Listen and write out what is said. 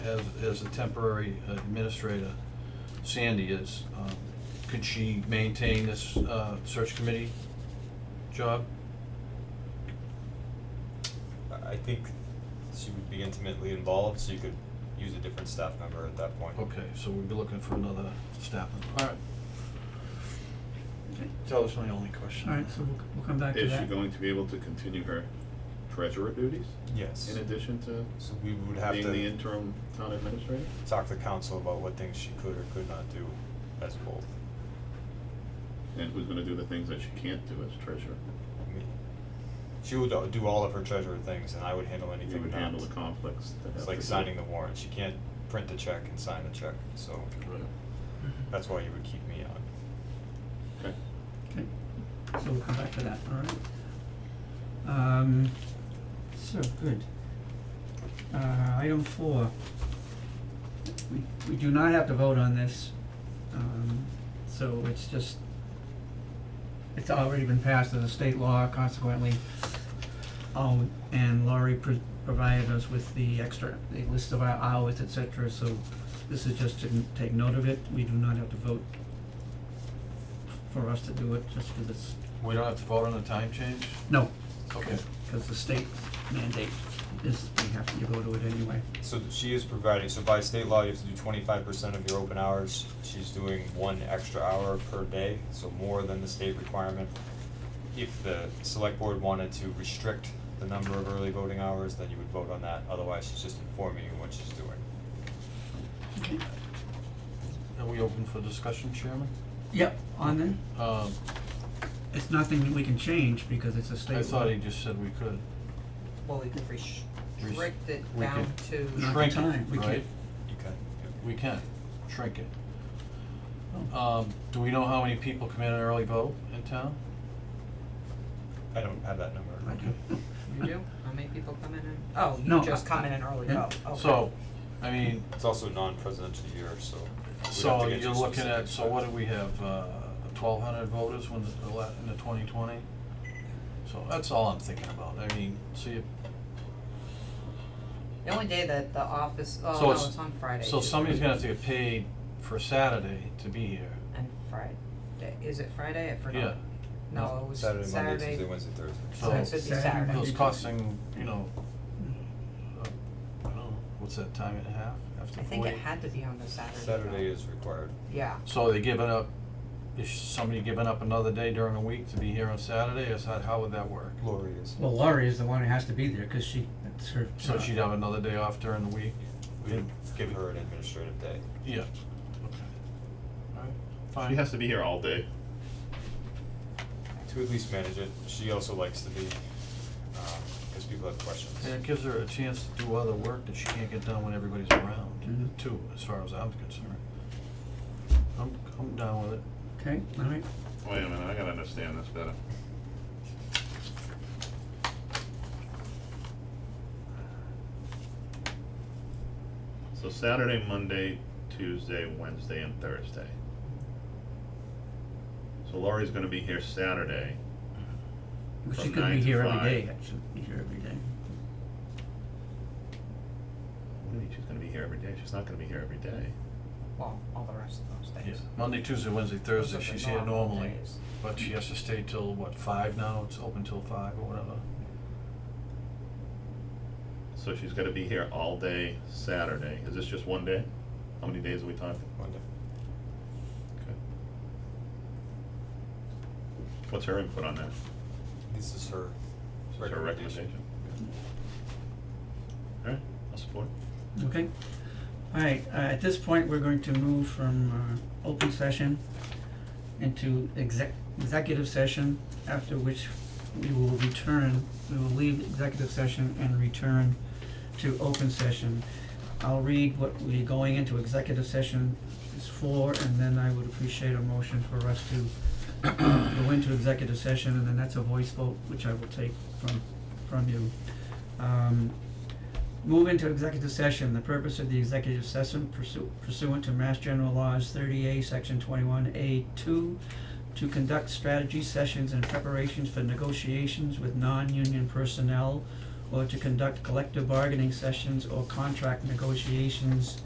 as, as a temporary administrator, Sandy is, um, could she maintain this, uh, search committee job? I I think she would be intimately involved, so you could use a different staff member at that Oh, point. Okay, so we'd be looking for another staff member, alright. Okay. That was my only question. Alright, so we'll, we'll come back to Is she that. going to be able to continue her treasurer duties Yes. in addition to So we would have being the to interim town administrator? talk to council about what things she could or could not do as both. And who's gonna do the things that she can't do as treasurer? I mean, She would uh, do all of her treasurer things and I would handle You anything would not. handle the conflicts that have It's like to do- signing the warrant, she can't print the check and sign the check, so Right. that's why you would keep me on. Okay. Okay, so we'll come back to that, alright. Um, so, good. Uh, item four. We, we do not have to vote on this, um, so it's just, it's already been passed as a state law, consequently, oh, and Laurie pro- provided us with the extra, the list of our hours, et cetera, so this is just to n- take note of it, we do not have to vote for us to do it, just because it's, We don't have to vote on the time change? no, Okay, because the state mandate is, we have to go to it anyway. So th- she is providing, so by state law, you have to do twenty-five percent of your open hours, she's doing one extra hour per day, so more than the state requirement. If the select board wanted to restrict the number of early voting hours, then you would vote on that, otherwise she's just informing you what she's doing. are we open for discussion, Chairman? Yep, on then, Um, it's nothing that we can change because it's a state law. I thought he just said we could. Well, we could restrict it we down could- to, Not the Shrink time, it, we right? can't. You can, We can, shrink it. Um, do we know how many people come in and early vote in town? yeah. I don't have that number. I do. you do, how many people come in and, oh, No, you just I- come in and early yeah. vote, okay. So, I mean, It's also a non-presidential year, so we'd have so to get you you're looking at, specifics, so but- what do we have, uh, twelve hundred voters when the, ele- in the twenty twenty? So that's all I'm thinking about, I mean, so you, The only day that the office, oh, So no, it's- it's on Friday. so somebody's gonna have to get paid for Saturday to be here, And Friday, is it Friday, I forgot. yeah. No, it was Saturday, Monday, Tuesday, Saturday, Wednesday, Thursday. so it So- should be Saturday, Saturday. Monday, It's Tuesday. Oh. costing, you know, uh, I don't know, what's that, time and a half after I forty? think it had to be on the Saturday. though. Saturday is required. Yeah, So they giving up, is somebody giving up another day during the week to be here on Saturday, is that, how would that work? Lori is. Well, Laurie is the one who has to be there, cause she, that's her So job. she'd have another day off during the week? We'd give her an administrative day. Yeah. Okay. Alright, She fine. has to be here all day. to at least manage it. She also likes to be, because people have questions. And it gives her a chance to do other work that she can't get done when everybody's around, Mm-hmm. Mhm. too, as far as I'm concerned. I'm, I'm down with it. Okay, alright, Wait a minute, I gotta understand this better. So Saturday, Monday, Tuesday, Wednesday, and Thursday. So Laurie's gonna be here Saturday, well, she From could nine be to here every five. day, actually, be here every day. what do you mean she's gonna be here every day? She's not gonna be here every day. well, all the rest of those Yeah. days. Monday, Tuesday, Wednesday, Those Thursday, are the she's here normal normally, days. but she has to stay till, what, five now? It's open till five or whatever. So she's gonna be here all day Saturday. Is this just one day? How many days are we talking? Monday. Okay. What's her input on that? This is her Is her recommendation. recommendation? Alright, I'll support it. Okay. All right, uh, at this point, we're going to move from, uh, open session into exec- executive session, after which we will return, we will leave executive session and return to open session. I'll read what we're going into executive session is for, and then I would appreciate a motion for us to uh, go into executive session, and then that's a voice vote, which I will take from, from you. Um, Move into executive session. The purpose of the executive session pursu- pursuant to Mass General Laws thirty A, section twenty-one A two, to conduct strategy sessions and preparations for negotiations with non-union personnel or to conduct collective bargaining sessions or contract negotiations